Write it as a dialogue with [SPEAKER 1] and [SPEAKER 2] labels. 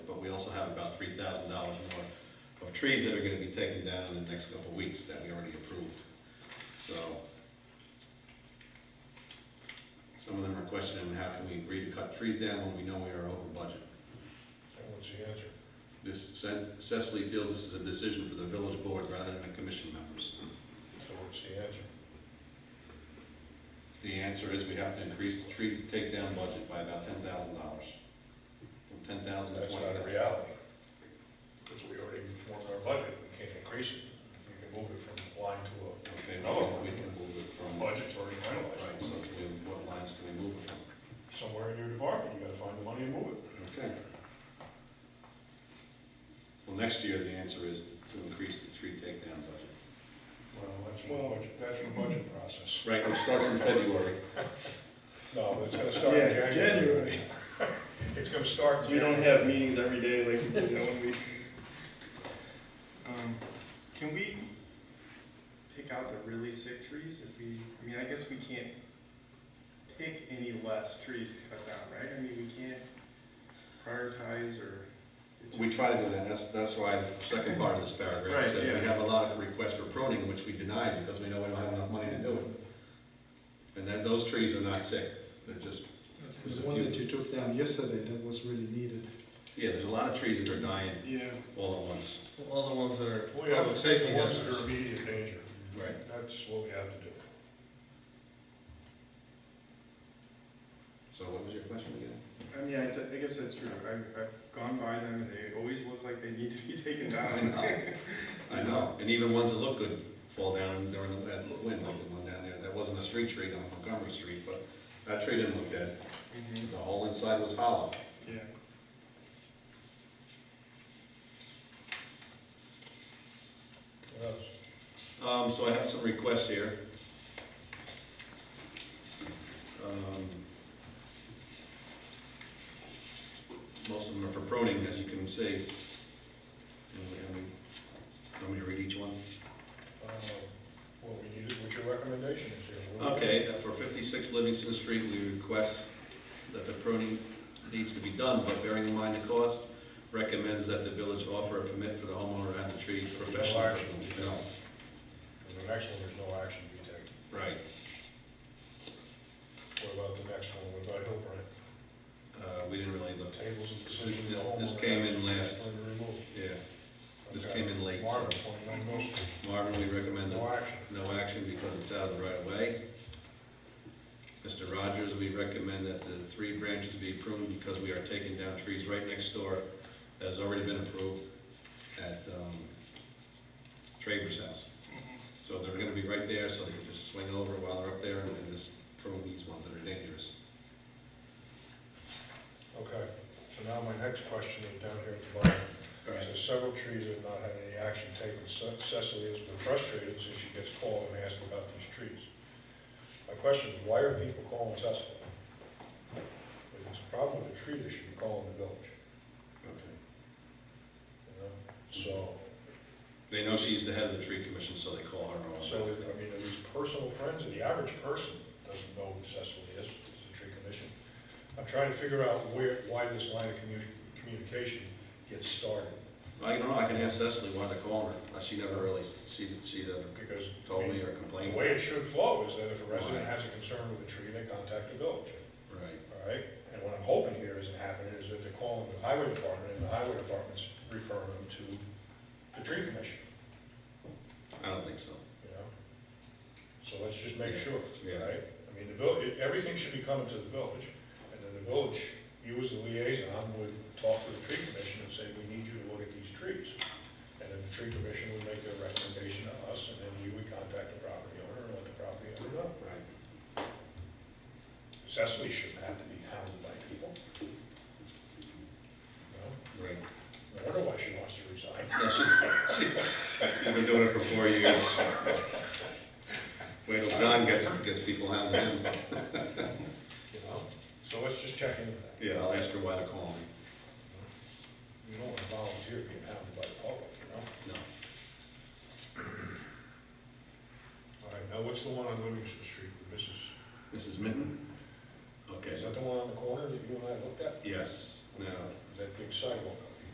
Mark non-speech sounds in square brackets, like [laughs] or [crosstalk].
[SPEAKER 1] also have about three thousand dollars more of trees that are gonna be taken down in the next couple of weeks that we already approved. So, some of them are questioning, how can we agree to cut trees down when we know we are over budget?
[SPEAKER 2] And what's the answer?
[SPEAKER 1] This, Ce- Cecily feels this is a decision for the village board rather than the commission members.
[SPEAKER 2] So what's the answer?
[SPEAKER 1] The answer is we have to increase the tree takedown budget by about ten thousand dollars. From ten thousand to
[SPEAKER 2] That's
[SPEAKER 1] twenty
[SPEAKER 2] not a
[SPEAKER 1] thousand.
[SPEAKER 2] reality. Because we already formed our budget, we can't increase it. We can move it from line to
[SPEAKER 1] Okay,
[SPEAKER 2] No.
[SPEAKER 1] we can- we can move it
[SPEAKER 2] a
[SPEAKER 1] from, right,
[SPEAKER 2] budget's already finalized.
[SPEAKER 1] so can we- what lines can we move it from?
[SPEAKER 2] Somewhere in your department, you gotta find the money and move it.
[SPEAKER 1] Okay. Well, next year, the answer is to increase the tree takedown budget.
[SPEAKER 2] Well, that's for budget, that's for budget process.
[SPEAKER 1] Right, which starts in February.
[SPEAKER 2] No, but it's gonna start in
[SPEAKER 3] Yeah,
[SPEAKER 2] January. [laughs] It's gonna start.
[SPEAKER 3] So
[SPEAKER 2] in
[SPEAKER 3] we don't
[SPEAKER 2] January.
[SPEAKER 3] have meetings every day like we do now when we. Um, Can we pick out the really sick trees if we, I mean, I guess we can't pick any less trees to cut down, right? I mean, we can't prioritize or. it's
[SPEAKER 1] We
[SPEAKER 3] just-
[SPEAKER 1] try to do that, that's, that's why the second part of this paragraph
[SPEAKER 3] Right,
[SPEAKER 1] says
[SPEAKER 3] yeah.
[SPEAKER 1] we have a lot of requests for pruning, which we deny because we know we don't have enough money to do it. And then those trees are not sick, they're just, There's a
[SPEAKER 4] The one
[SPEAKER 1] few.
[SPEAKER 4] that you took down yesterday, that was really needed.
[SPEAKER 1] yeah, there's a lot of trees that are dying
[SPEAKER 3] Yeah,
[SPEAKER 1] all at once.
[SPEAKER 5] All the ones that are
[SPEAKER 2] We have
[SPEAKER 5] public
[SPEAKER 2] to take
[SPEAKER 5] safety
[SPEAKER 2] the ones that are
[SPEAKER 5] hazards.
[SPEAKER 2] immediate danger.
[SPEAKER 1] Right.
[SPEAKER 2] That's what we have to do.
[SPEAKER 1] So what was your question again?
[SPEAKER 3] I mean, I, I guess that's true. I've, I've gone by them and they always look like they need to be taken
[SPEAKER 1] I
[SPEAKER 3] down.
[SPEAKER 1] know, I know, and even ones that look good fall down during that wind, like the one down there, that wasn't a street tree on Montgomery Street, but that tree didn't look dead,
[SPEAKER 3] Mhm,
[SPEAKER 1] the whole inside was hollow.
[SPEAKER 3] Yeah.
[SPEAKER 2] What else?
[SPEAKER 1] Um, so I have some requests here. Um, Most of them are for pruning, as you can see. And we- and we- Want me to read each one?
[SPEAKER 2] Um, What we need is what your recommendation is here. What do we-
[SPEAKER 1] Okay, uh, for 56 Livingston Street, we request that the pruning needs to be done, but bearing in mind the cost, recommends that the village offer a permit for the homeowner and the tree professional.
[SPEAKER 2] action.
[SPEAKER 1] No,
[SPEAKER 2] And the next one, there's no action to be taken.
[SPEAKER 1] Right.
[SPEAKER 2] What about the next one, what about Hillbrant?
[SPEAKER 1] Uh, we didn't really look,
[SPEAKER 2] Tables of decision.
[SPEAKER 1] This-
[SPEAKER 2] the whole
[SPEAKER 1] this
[SPEAKER 2] one.
[SPEAKER 1] came in last.
[SPEAKER 2] Remove.
[SPEAKER 1] yeah. This
[SPEAKER 2] Okay.
[SPEAKER 1] came in late, so-
[SPEAKER 2] Marvin, 29 Mill Street,
[SPEAKER 1] Marvin, we recommend that
[SPEAKER 2] no action.
[SPEAKER 1] No action because it's out of the right of way. Mr. Rogers, we recommend that the three branches be pruned because we are taking down trees right next door that has already been approved at um, Traver's house. So they're gonna be right there, so they can just swing over while they're up there and then just prune these ones that are dangerous.
[SPEAKER 2] Okay, so now my next question is down here at the bottom.
[SPEAKER 1] All right.
[SPEAKER 2] There's several trees that have not had any action taken. Ce- Cecily has been frustrated since she gets called and asked about these trees. My question is, why are people calling Cecily? If it's a problem with the tree, they should be calling the village,
[SPEAKER 1] Okay.
[SPEAKER 2] you know? So,
[SPEAKER 1] They know she's the head of the tree commission, so they call her and all
[SPEAKER 2] so,
[SPEAKER 1] that.
[SPEAKER 2] I mean, are these personal friends, the average person doesn't know who Cecily is, is the tree commission. I'm trying to figure out where, why this line of commu- communication gets started,
[SPEAKER 1] I don't know, I can ask Cecily why they're calling her. Uh, She never really, she, she never
[SPEAKER 2] because. I
[SPEAKER 1] told
[SPEAKER 2] mean,
[SPEAKER 1] me or
[SPEAKER 2] The
[SPEAKER 1] complained.
[SPEAKER 2] way it should flow is that if a resident
[SPEAKER 1] Right.
[SPEAKER 2] has a concern with a tree, they contact the village,
[SPEAKER 1] Right.
[SPEAKER 2] all right? And what I'm hoping here isn't happening is that they're calling the highway department, and the highway department's referring them to the tree commission,
[SPEAKER 1] I don't think so.
[SPEAKER 2] you know? So let's just make
[SPEAKER 1] Yeah.
[SPEAKER 2] sure,
[SPEAKER 1] Yeah.
[SPEAKER 2] all right? I mean, the village, everything should be coming to the village, and then the village, you as the liaison would talk to the tree commission and say, we need you to look at these trees. And then the tree commission would make their recommendation to us, and then you would contact the property owner and let the property owner know.
[SPEAKER 1] Right.
[SPEAKER 2] Cecily shouldn't have to be hounded by people. No,
[SPEAKER 1] Right.
[SPEAKER 2] I wonder why she wants to resign.
[SPEAKER 1] No, [laughs] she's, she, we've been doing it for four years. Wait till John gets, gets people out of him.
[SPEAKER 2] You know, so let's just check into that.
[SPEAKER 1] Yeah, I'll ask her why they're calling me.
[SPEAKER 2] You don't want to volunteer being hounded by the public, you know?
[SPEAKER 1] No.
[SPEAKER 2] All right, now what's the one on Livingston Street with Mrs.?
[SPEAKER 1] Mrs. Mitten?
[SPEAKER 2] Is
[SPEAKER 1] Okay.
[SPEAKER 2] that the one on the corner that you and I looked at?
[SPEAKER 1] Yes, no,
[SPEAKER 2] That big sidewalk up